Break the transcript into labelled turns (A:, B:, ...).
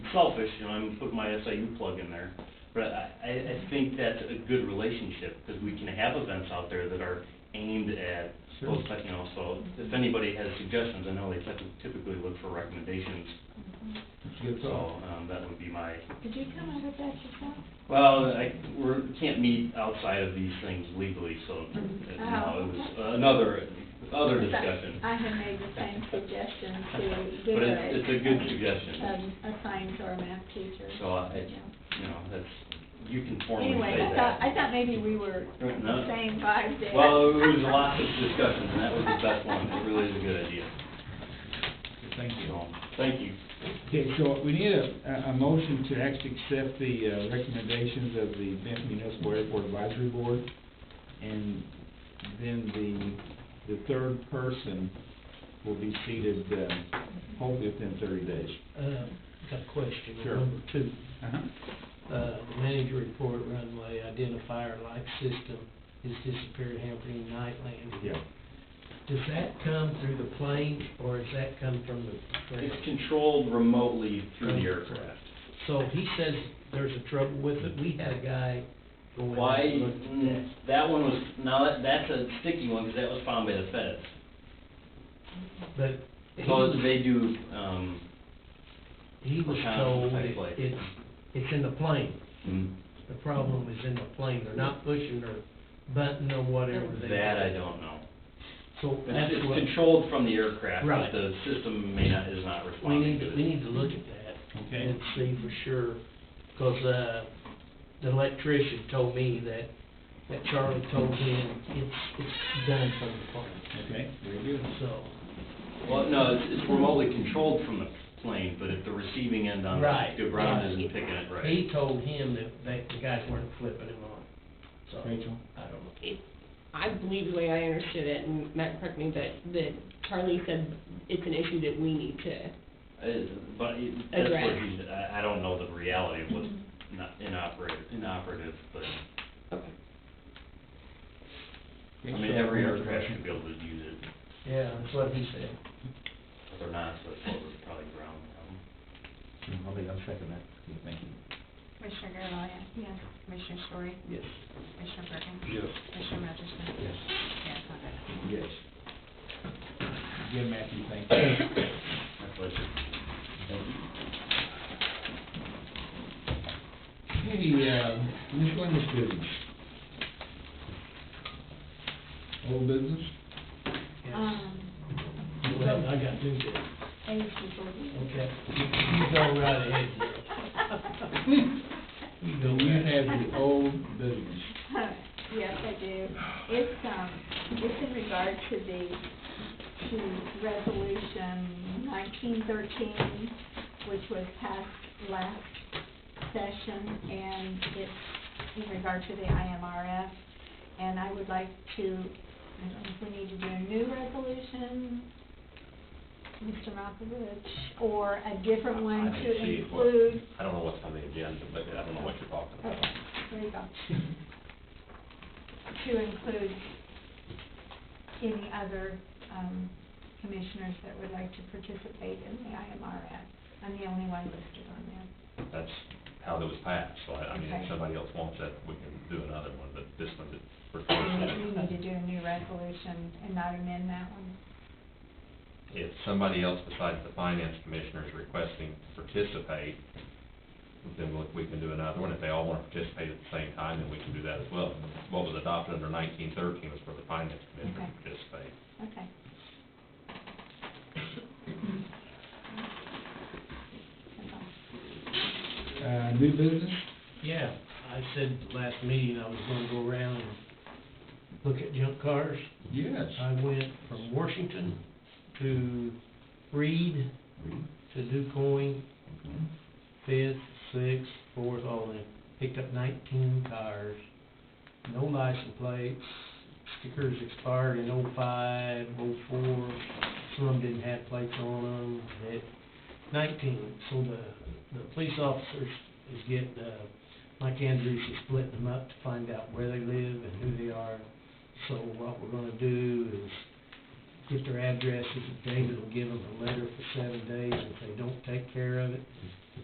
A: selfish, you know, I'm putting my SIU plug in there, but I, I, I think that's a good relationship, because we can have events out there that are aimed at
B: Sure.
A: both, you know, so if anybody has suggestions, I know they typ- typically look for recommendations,
B: Good
A: so,
B: thought.
A: um, that would be my,
C: Did you come up with that yourself?
A: well, I, we're, can't meet outside of these things legally, so, uh, no, it was another, other discussion.
C: I had made the same suggestion to give
A: But
C: a.
A: it's, it's a good suggestion,
C: um, A sign to our math teacher.
A: so I,
C: Yeah.
A: you know, that's, you can formally
C: Anyway,
A: say
C: I
A: that.
C: thought, I thought maybe we were
A: No.
C: saying five days.
A: Well, it was lots of discussion, and that was the best one, it really is a good idea,
B: Thank you.
A: so, thank you.
B: Okay, so we need a, a, a motion to actually accept the uh, recommendations of the Benton Municipal Airport Advisory Board. And then the, the third person will be seated, uh, hopefully within thirty days.
D: Uh, got a question, on
B: Sure.
D: number two,
B: Uh-huh.
D: uh, manager report runway identifier light system is disappeared hampering night landing.
B: Yeah.
D: Does that come through the plane, or does that come from the
A: It's
D: ground?
A: controlled remotely through the aircraft.
D: So he says there's a trouble with it, we had a guy go in
A: Why,
D: and look at that.
A: mm, that one was, now, that- that's a sticky one, because that was found by the feds.
D: But he
A: So
D: was,
A: they do, um,
D: he was
A: Kind of
D: told
A: type
D: it-
A: like-
D: it's, it's in the plane,
A: mm,
D: the problem is in the plane, they're not pushing or button or whatever they.
A: that I don't know.
D: So
A: It's
D: that's
A: it's
D: what.
A: controlled from the aircraft, but
D: Right.
A: the system may not, is not
D: We
A: responding
D: need,
A: to
D: to
A: it.
D: we need to look at that.
B: Okay.
D: And see for sure, 'cause, uh, the electrician told me that, that Charlie told him it's, it's done from the phone,
B: Okay, very good.
D: so.
A: Well, no, it's, it's remotely controlled from the plane, but at the receiving end on
D: Right.
A: the ground isn't picking it right.
D: He told him that, that the guys weren't flipping him on, so.
B: Rachel?
D: I don't know.
E: it, I believe the way I understood it, and Matt correct me, but, that Charlie said it's an issue that we need to,
A: Uh, But it- that's what
E: Address.
A: he's, I, I don't know the reality of what's not inoperative, inoperative, but,
E: okay.
A: I mean, every aircraft should be able to use it,
D: Yeah, that's what he said.
A: if they're not, so it's probably- probably ground. um,
B: I'll, be- I'll second that. Yeah, Thank you.
F: Commissioner Garavilla?
C: Yes.
F: Commissioner Story?
D: Yes.
F: Commissioner Perkins?
B: Yes.
F: Commissioner Merschman?
B: Yes.
F: Mayor Condon?
B: Yes. Again, Matthew, thank you.
A: My pleasure.
B: Hey, uh, miscellaneous business. Old business?
D: Yes.
C: Um,
D: Well, I got new there.
C: age before we-
D: Okay. You go right ahead, you go
B: You
D: right ahead.
B: have the old business.
C: Yes, I do. It's, um, it's in regard to the, to resolution nineteen thirteen, which was passed last session, and it's in regard to the IMRF. And I would like to, I don't know if we need to do a new resolution, Mr. Malkovich, or a different one
G: I
C: to
G: didn't see what-
C: include.
G: I don't know what's on the agenda, but I don't know what you're talking
C: Okay,
G: about.
C: there you go. To include any other, um, commissioners that would like to participate in the IMRF. I'm the only one listed on there.
G: That's how that was passed, so I, I mean,
C: Okay.
G: if somebody else wants that, we can do another one, but this one that we're
C: We
G: forcing
C: need to do a new resolution and not amend that one.
G: it. If somebody else besides the finance commissioner is requesting to participate, then we- we can do another one. If they all want to participate at the same time, then we can do that as well. What was adopted under nineteen thirteen was for the finance commissioner to
C: Okay.
G: participate.
C: Okay. That's all.
B: Uh, new business?
D: Yeah, I said last meeting I was gonna go around and look at junk cars.
B: Yes.
D: I went from Washington to Reed, to DuCoin, Fifth, Sixth, Fourth, all in. Picked up nineteen cars, no license plates, stickers expired in oh five, oh four, some didn't have plates on them, at nineteen. So the, the police officers is getting, uh, Mike Andrews is splitting them up to find out where they live and who they are. So what we're gonna do is get their addresses, and David will give them a letter for seven days, if they don't take care of it,